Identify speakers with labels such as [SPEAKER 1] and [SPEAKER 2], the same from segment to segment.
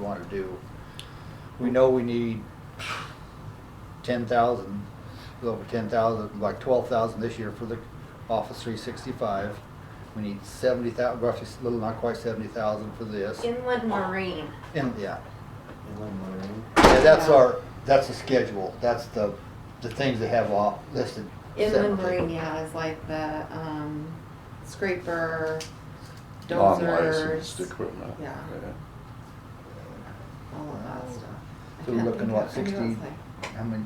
[SPEAKER 1] wanna do. We know we need ten thousand, a little over ten thousand, like twelve thousand this year for the Office three sixty-five. We need seventy thousand, roughly, a little, not quite seventy thousand for this,
[SPEAKER 2] Inland Marine.
[SPEAKER 1] and, yeah.
[SPEAKER 3] Inland Marine.
[SPEAKER 1] Yeah, that's
[SPEAKER 2] Yeah.
[SPEAKER 1] our, that's the schedule, that's the, the things they have off listed
[SPEAKER 2] Inland
[SPEAKER 1] separately.
[SPEAKER 2] Marine, yeah, is like the, um, scraper,
[SPEAKER 4] Non-licensed
[SPEAKER 2] dozers,
[SPEAKER 4] equipment.
[SPEAKER 2] Yeah. all of that stuff. I
[SPEAKER 1] So we're
[SPEAKER 2] can't
[SPEAKER 1] looking,
[SPEAKER 2] think
[SPEAKER 1] what,
[SPEAKER 2] of- I knew it
[SPEAKER 1] 60?
[SPEAKER 2] was like-
[SPEAKER 1] How many,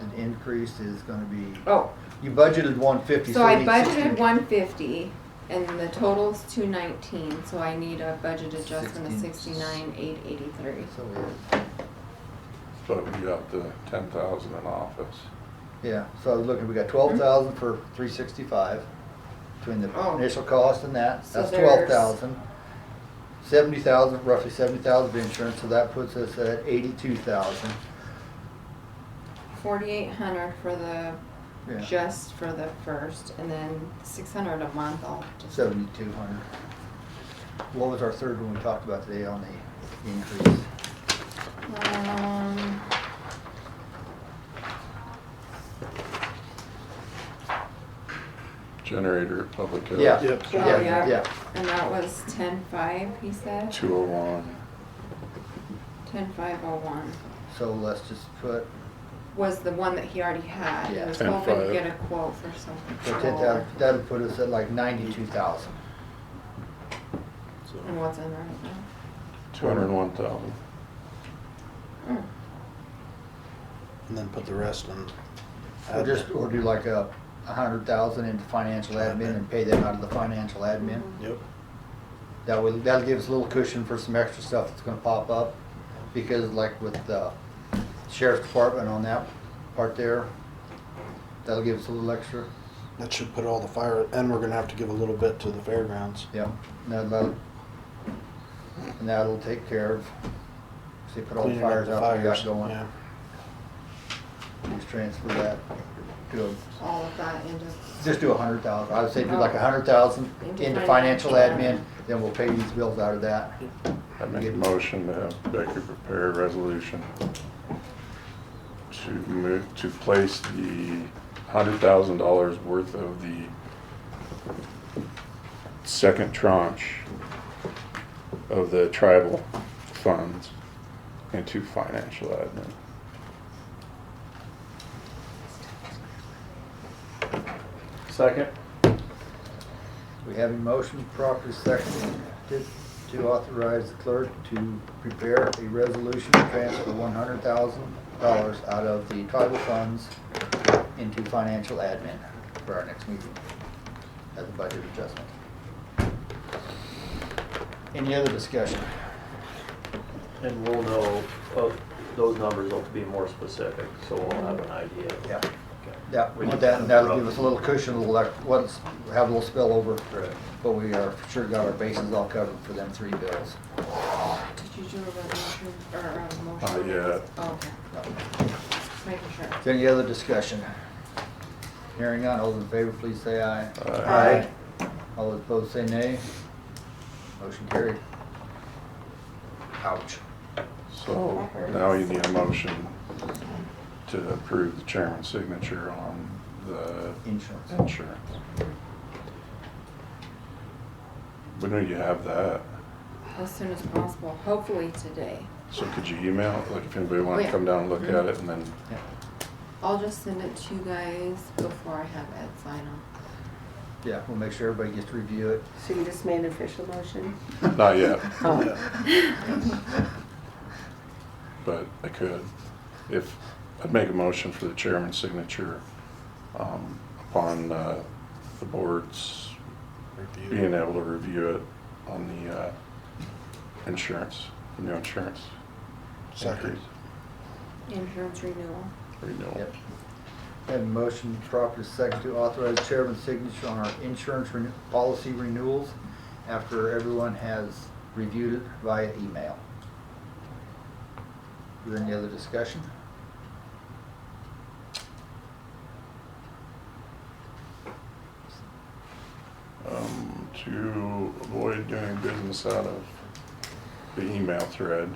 [SPEAKER 1] an increase is gonna be,
[SPEAKER 2] Oh,
[SPEAKER 1] you budgeted one fifty,
[SPEAKER 2] so
[SPEAKER 1] so we
[SPEAKER 2] I
[SPEAKER 1] need
[SPEAKER 2] budgeted
[SPEAKER 1] 60.
[SPEAKER 2] one fifty and the total's two nineteen, so I need a budget adjustment of
[SPEAKER 1] Sixteen.
[SPEAKER 2] sixty-nine, eight eighty-three.
[SPEAKER 1] So we-
[SPEAKER 4] So we got the ten thousand in office.
[SPEAKER 1] Yeah, so I was looking, we got twelve thousand for three sixty-five, between the
[SPEAKER 2] Hmm? Oh.
[SPEAKER 1] initial cost and that,
[SPEAKER 2] So
[SPEAKER 1] that's
[SPEAKER 2] there's-
[SPEAKER 1] twelve thousand. Seventy thousand, roughly seventy thousand of insurance, so that puts us at eighty-two thousand.
[SPEAKER 2] Forty-eight hundred for the,
[SPEAKER 1] Yeah.
[SPEAKER 2] just for the first, and then six hundred a month, I'll just.
[SPEAKER 1] Seventy-two hundred. What was our third one we talked about today on the increase?
[SPEAKER 2] Um.
[SPEAKER 4] Generator at Public Health.
[SPEAKER 1] Yeah,
[SPEAKER 3] Yep.
[SPEAKER 2] Oh,
[SPEAKER 1] yeah, yeah.
[SPEAKER 2] And that was ten five, he said,
[SPEAKER 4] Two oh one.
[SPEAKER 2] ten five oh one,
[SPEAKER 1] So let's just put,
[SPEAKER 2] was the one that he already had, he
[SPEAKER 1] Yeah.
[SPEAKER 2] was hoping to
[SPEAKER 4] 10,500.
[SPEAKER 2] get a quote for something.
[SPEAKER 1] put ten
[SPEAKER 2] smaller.
[SPEAKER 1] thousand, that'll put us at like ninety-two thousand.
[SPEAKER 3] So,
[SPEAKER 2] And what's in there right now?
[SPEAKER 4] Two hundred and one thousand.
[SPEAKER 2] Mm.
[SPEAKER 3] and then put the rest in.
[SPEAKER 1] Or just, or do like a, a hundred thousand into financial admin and pay that out of the financial admin.
[SPEAKER 3] Yep.
[SPEAKER 1] That will, that'll give us a little cushion for some extra stuff that's gonna pop up, because like with the sheriff's department on that part there, that'll give us a little extra,
[SPEAKER 3] That should put all the fire, and we're gonna have to give a little bit to the fairgrounds.
[SPEAKER 1] yeah. And that'll, and that'll take care of, see, put all the
[SPEAKER 3] Cleaning up
[SPEAKER 1] fires
[SPEAKER 3] the
[SPEAKER 1] out we got
[SPEAKER 3] fires,
[SPEAKER 1] going.
[SPEAKER 3] yeah.
[SPEAKER 1] Just transfer that to, a-
[SPEAKER 2] All of that into,
[SPEAKER 1] just do a hundred thousand, I would say do like a hundred thousand
[SPEAKER 2] Into
[SPEAKER 1] into
[SPEAKER 2] financial
[SPEAKER 1] financial admin, then we'll pay these bills out of that.
[SPEAKER 4] I make a motion to have Becky prepare a resolution to move, to place the hundred thousand dollars worth of the second tranche of the tribal funds into financial admin.
[SPEAKER 5] Second.
[SPEAKER 1] We have a motion properly seconded to authorize the clerk to prepare a resolution to transfer one hundred thousand dollars out of the tribal funds into financial admin for our next meeting as a budget adjustment. Any other discussion?
[SPEAKER 5] And we'll know, uh, those numbers will be more specific, so we'll have an idea.
[SPEAKER 1] Yeah.
[SPEAKER 5] Okay.
[SPEAKER 1] Yeah, we want that, and that'll give us a little cushion, a little, left- once, have a little spillover,
[SPEAKER 5] Right.
[SPEAKER 1] but we are sure got our bases all covered for them three bills.
[SPEAKER 2] did you do a resolution or a motion?
[SPEAKER 4] Not yet.
[SPEAKER 2] Oh, Okay, just making sure.
[SPEAKER 1] Is there any other discussion? Hearing none, all those in favor, please say aye.
[SPEAKER 4] Aye.
[SPEAKER 1] All those opposed, say nay. Motion carried. Ouch.
[SPEAKER 4] So now you need a motion to approve the chairman's signature on the
[SPEAKER 1] Insurance.
[SPEAKER 4] insurance. When do you have that?
[SPEAKER 2] As soon as possible, hopefully today.
[SPEAKER 4] So could you email, it? like if anybody wanted
[SPEAKER 2] Yeah.
[SPEAKER 4] to come down and look at it and then,
[SPEAKER 1] Yeah.
[SPEAKER 2] I'll just send it to you guys before I have Ed sign off.
[SPEAKER 1] Yeah, we'll make sure everybody gets to review it.
[SPEAKER 6] So you just made an official motion?
[SPEAKER 4] not yet,
[SPEAKER 1] Yeah.
[SPEAKER 4] but I could. If, I'd make a motion for the chairman's signature um, upon uh, the board's
[SPEAKER 3] Review.
[SPEAKER 4] being able to review it on the uh, insurance, the new insurance.
[SPEAKER 3] Second.
[SPEAKER 4] increase,
[SPEAKER 2] Insurance renewal.
[SPEAKER 4] Renewal.
[SPEAKER 1] Yep. Have a motion properly second to authorize chairman's signature on our insurance renew- policy renewals after everyone has reviewed it via email. Is there any other discussion?
[SPEAKER 4] Um, to avoid doing business out of the email thread,